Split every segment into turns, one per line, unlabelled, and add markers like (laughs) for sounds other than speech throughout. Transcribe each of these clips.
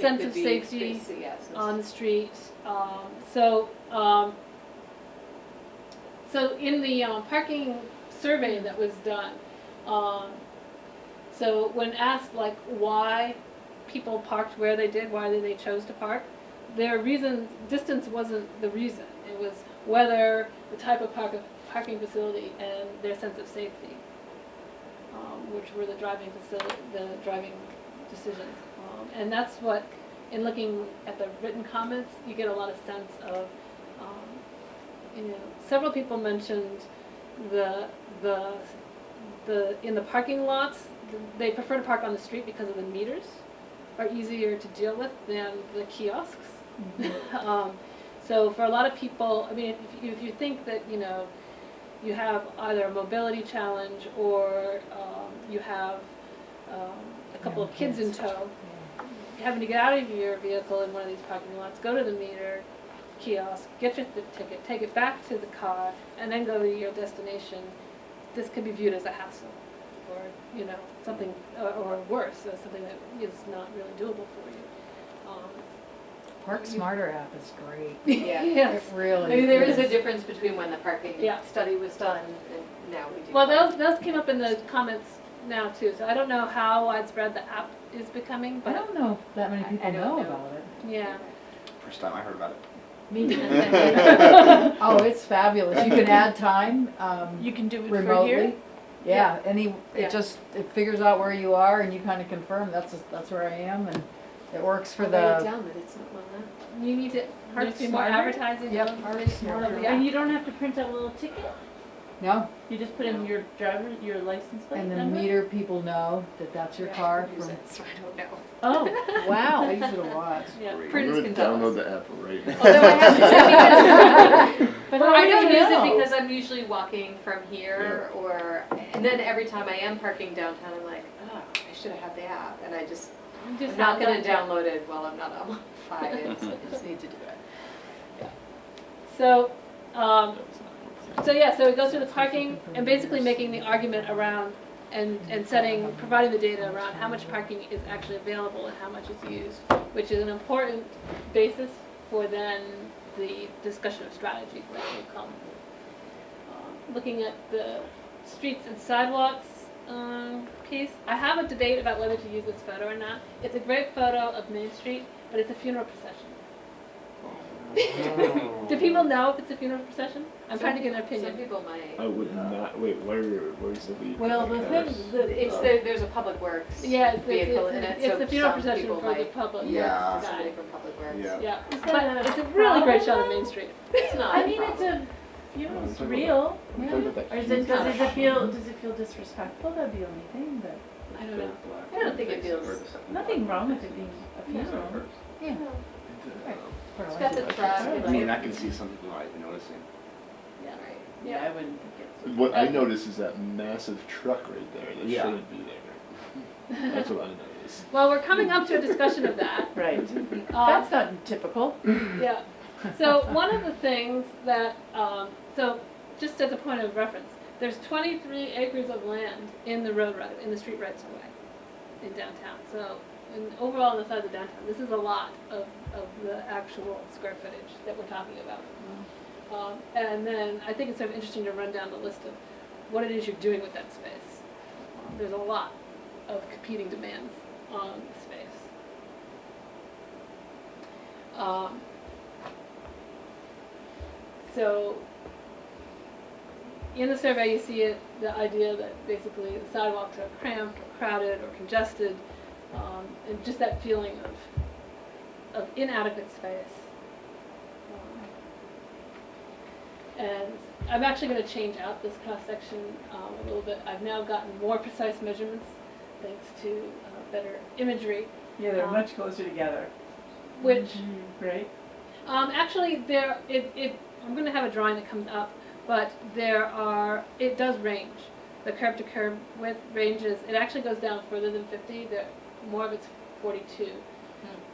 sense
could
of
be
safety
space- yeah, sense of-
on the street. Um, so, um, so in the um, parking survey that was done, um, so when asked like why people parked where they did, why they chose to park, their reason distance wasn't the reason. It was whether the type of park, parking facility and their sense of safety, um, which were the driving facility, the driving decisions. Um, and that's what in looking at the written comments, you get a lot of sense of, um, you know, several people mentioned the, the, the, in the parking lots, they prefer to park on the street because of the meters are easier to deal with than the kiosks. (laughs) Um, so for a lot of people, I mean, if you, if you think that, you know, you have either a mobility challenge or, um, you have, um, a couple of kids in tow, having to get out of your vehicle in one of these parking lots, go to the meter kiosk, get your th- ticket, take it back to the car, and then go to your destination, this could be viewed as a hassle, or, you know, something, or- or worse, as something that is not really doable for you. Um, (laughs)
Park Smarter app is great.
Yeah.
It
Yes,
really
I mean, there is a
is.
difference between when the parking
Yeah.
study was done and now we do.
well, those, those came up in the comments now too, so I don't know how widespread the app is becoming,
I
but,
don't know if that many
I- I
people
don't
know
know.
about it.
yeah.
First time I heard about it.
(laughs)
Me
too.
(laughs) Oh, it's fabulous. You can add time, um,
You can do it for here?
remotely. Yeah, any,
Yeah.
it just, it figures out where you are and you kinda confirm, that's, that's where I am and it works for
Write it
the,
down, but it's not well known.
You need to, hard to
There's
do more
smarter?
advertising.
Yep,
on-
hard to
on
smarter.
the app.
And you don't have to print out a little ticket?
no,
You just put in your driver, your license plate
and the
number?
meter people know that that's your
Yeah, I
car.
don't use
from-
it, So I don't know.
Oh,
Wow, I use it a lot.
Yeah.
Great.
Prudence
I'm gonna
Gonzalez.
download the app right now.
Although I have to because (laughs)
but
Well,
how
I
do
don't
you
use
know?
it because I'm usually walking from here or, and then every time I am parking downtown, I'm like, oh, I should have had the app. And I just,
You
I'm
just
not
have
gonna
that.
download it while I'm not on (laughs) my phone. It's- I just need to do it.
So, um, so yeah, so it goes through the parking and basically making the argument around and, and setting, providing the data around how much parking is actually available and how much is used, which is an important basis for then the discussion of strategies that will come. Um, Looking at the streets and sidewalks, um, piece, I have a debate about whether to use this photo or not. It's a great photo of Main Street, but it's a funeral procession. (laughs) Do people know if it's a funeral procession? I'm trying to get an
Some
opinion.
people might.
I would not, wait, where, where's the lead?
Well, the
Like,
thing,
uh,
the,
It's the, there's a public works
Yeah, it's, it's,
vehicle in
it's,
it,
it's
so
the funeral
some
procession
people
for the
might.
public.
Yeah.
that's the
Somebody
guy.
from public works.
Yeah.
Yeah,
that
but
a
it's a really great
problem,
shot of
though?
Main Street.
It's not
(laughs) I
a
mean, it's
problem.
a, you know, it's
Yeah.
real.
I'm talking about that
Or is
huge
it, does,
not
does
a
it feel, does it feel disrespectful? That'd be the only thing, but
I don't know.
black
I don't think it
face or
feels-
the second
nothing
black
wrong with
face.
it being a
Is that
funeral.
first?
yeah.
Right.
for
It's
a
got
license.
the
I mean, I
truck.
can see some people not even noticing.
Yeah.
Right.
Yeah, I wouldn't think it's.
What I notice is that massive truck right there that
Yeah.
shouldn't be there. That's what I notice.
Well, we're coming up to a discussion of that.
Right.
Um,
(laughs) That's not typical.
yeah. So one of the things that, um, so just as a point of reference, there's 23 acres of land in the road right, in the street rights of way in downtown. So in, overall, on the size of downtown, this is a lot of, of the actual square footage that we're talking about. Um, and then I think it's sort of interesting to run down the list of what it is you're doing with that space. Um, There's a lot of competing demands on the space. Um, so, in the survey, you see it, the idea that basically the sidewalks are cramped or crowded or congested, um, and just that feeling of, of inadequate space. Um, And I'm actually gonna change out this cross-section, um, a little bit. I've now gotten more precise measurements thanks to, uh, better imagery,
Yeah,
they're
they're
much
much closer together,
which
Mm-hmm. right?
Um, actually, there it, it I'm gonna have a drawing that comes up, but there are it does range. The curb to curb width ranges. It actually goes down further than 50. There, more of it's 42.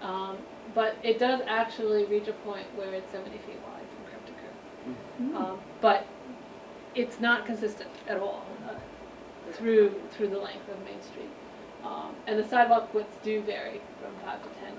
Um, but it does actually reach a point where it's 70 feet wide from curb to curb. Um, but it's not consistent at all uh, through through the length of Main Street. Um, and the sidewalk widths do vary from five to ten